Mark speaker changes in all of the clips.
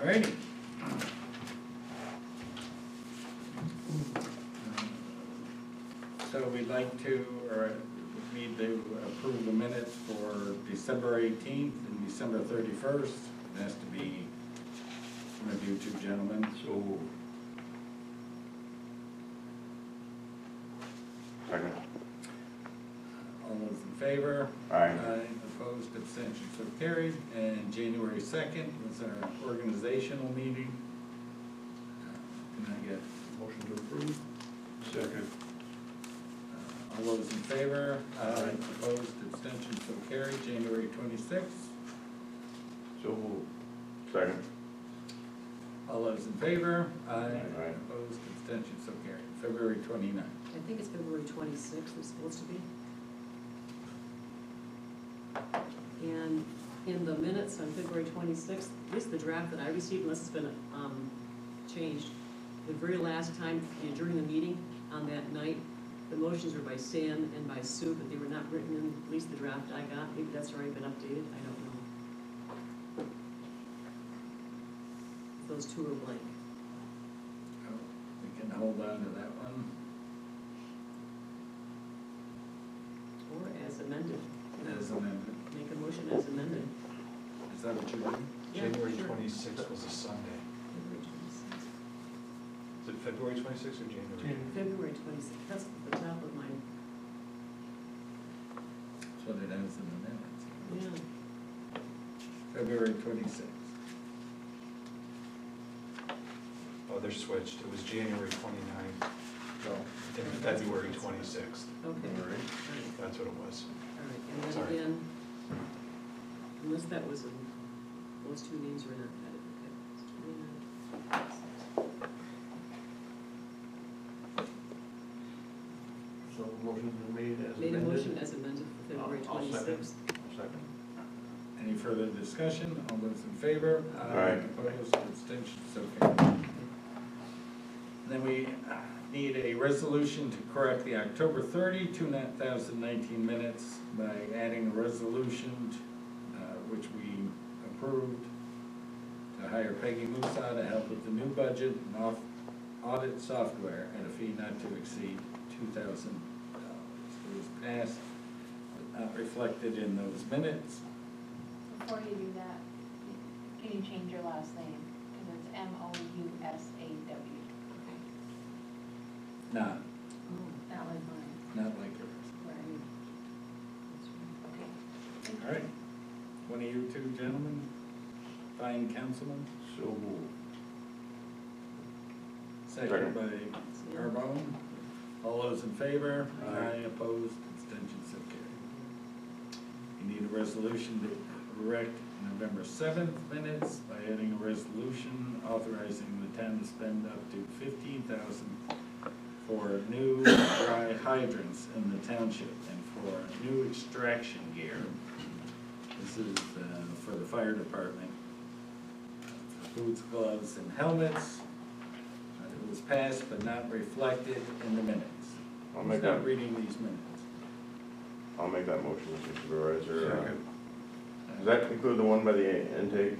Speaker 1: Alrighty. So we'd like to, or we need to approve the minutes for December eighteenth and December thirty-first. It has to be from you two gentlemen.
Speaker 2: So moved.
Speaker 3: Second.
Speaker 1: All those in favor?
Speaker 3: Aye.
Speaker 1: Opposed, abstentions so carried. And January second was our organizational meeting. Can I get
Speaker 2: Motion to approve? Second.
Speaker 1: Uh, All those in favor?
Speaker 2: Aye.
Speaker 1: Opposed, abstention, so carried, January twenty-sixth.
Speaker 2: So moved.
Speaker 3: Second.
Speaker 1: All those in favor?
Speaker 3: Aye.
Speaker 1: Opposed, abstention, so carried, February twenty-ninth.
Speaker 4: I think it's February twenty-sixth, it's supposed to be. And in the minutes on February twenty-sixth, at least the draft that I received, unless it's been, um, changed, the very last time during the meeting on that night, the motions were by Sam and by Sue, but they were not written in, at least the draft I got, maybe that's already been updated, I don't know. Those two are blank.
Speaker 1: Oh, We can hold on to that one.
Speaker 4: Or as amended.
Speaker 1: As amended,
Speaker 4: Make a motion as amended.
Speaker 1: is that what you want?
Speaker 4: Yeah,
Speaker 5: January
Speaker 4: sure.
Speaker 5: twenty-sixth was a Sunday.
Speaker 4: February 26th.
Speaker 5: Is it February twenty-sixth or January?
Speaker 4: February twenty-sixth, that's the top of my,
Speaker 1: That's what it has in the minutes.
Speaker 4: yeah.
Speaker 1: February twenty-sixth.
Speaker 5: Oh, they're switched. It was January twenty-ninth
Speaker 1: So,
Speaker 5: and February twenty-sixth.
Speaker 4: Okay, all right,
Speaker 5: That's what it was.
Speaker 4: all right. And then
Speaker 5: Sorry.
Speaker 4: again, unless that was, a- those two names were not added, okay. It's 29.
Speaker 2: So motion been made as
Speaker 4: Made
Speaker 2: amended?
Speaker 4: a motion as amended for February
Speaker 2: I'll- I'll second.
Speaker 4: twenty-sixth.
Speaker 2: Second.
Speaker 1: any further discussion? All those in favor?
Speaker 3: Aye.
Speaker 1: Opposed, abstention, so carried. Then we uh, need a resolution to correct the October 30, 2019 minutes by adding a resolution uh, which we approved to hire Peggy Musa to help with the new budget and off- audit software at a fee not to exceed $2,000. It was passed, but not reflected in those minutes.
Speaker 6: Before you do that, can you change your last name? Because it's M O U S A W,
Speaker 1: Not,
Speaker 4: Oh,
Speaker 6: not like mine.
Speaker 1: not like yours.
Speaker 4: right. That's right.
Speaker 6: Okay.
Speaker 1: All right. One of you two gentlemen, fine councilman.
Speaker 2: So moved.
Speaker 1: Second by
Speaker 4: So-
Speaker 1: Carbone. All those in favor?
Speaker 2: Aye.
Speaker 1: Opposed, abstentions, so carried. You need a resolution to correct November seventh minutes by adding a resolution authorizing the town to spend up to fifteen thousand for new dry hydrants in the township and for new extraction gear. This is uh, for the fire department. Boots, gloves, and helmets. Uh, It was passed but not reflected in the minutes.
Speaker 3: I'll make
Speaker 1: Who's not
Speaker 3: that-
Speaker 1: reading these minutes.
Speaker 3: I'll make that motion, Mr. Supervisor. Uh,
Speaker 2: Second.
Speaker 3: Does that include the one by the intake,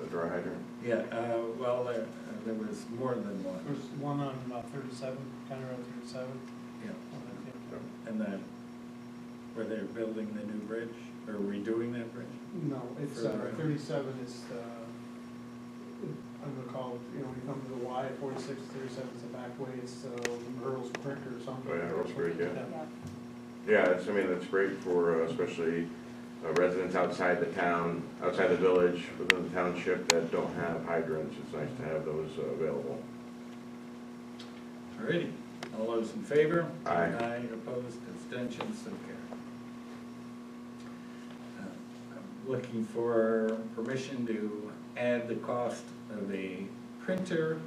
Speaker 3: the dry hydrant?
Speaker 1: Yeah, uh, well, there, uh, there was more than one,
Speaker 7: There's one on uh, thirty-seven, County Road thirty-seven.
Speaker 1: yeah.
Speaker 7: on that thing.
Speaker 1: And then, where they're building the new bridge, or redoing that bridge?
Speaker 7: No, it's,
Speaker 1: For the
Speaker 7: uh,
Speaker 1: road.
Speaker 7: thirty-seven is, uh, I'm gonna call, it, you know, when you come to the Y, 46, 37 is the back way, it's, uh, Earl's Creek or something.
Speaker 3: Oh, yeah, Earl's Creek, yeah.
Speaker 6: Yep.
Speaker 3: Yeah, that's, I mean, that's great for uh, especially uh, residents outside the town, outside the village, within the township that don't have hydrants. It's nice to have those uh, available.
Speaker 1: Alrighty, all those in favor?
Speaker 3: Aye.
Speaker 1: Aye, opposed, abstentions, so carried. Uh, I'm Looking for permission to add the cost of a printer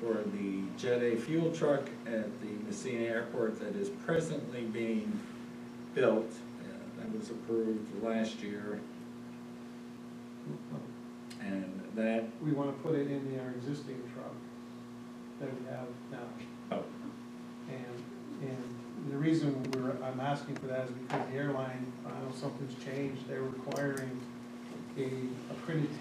Speaker 1: for the Jet A fuel truck at the Messina Airport that is presently being built. Uh, That was approved last year, and that,
Speaker 7: We wanna put it in our existing truck that we have now.
Speaker 1: oh,
Speaker 7: And, and the reason we're, I'm asking for that is because the airline, I know something's changed, they're requiring a, a printed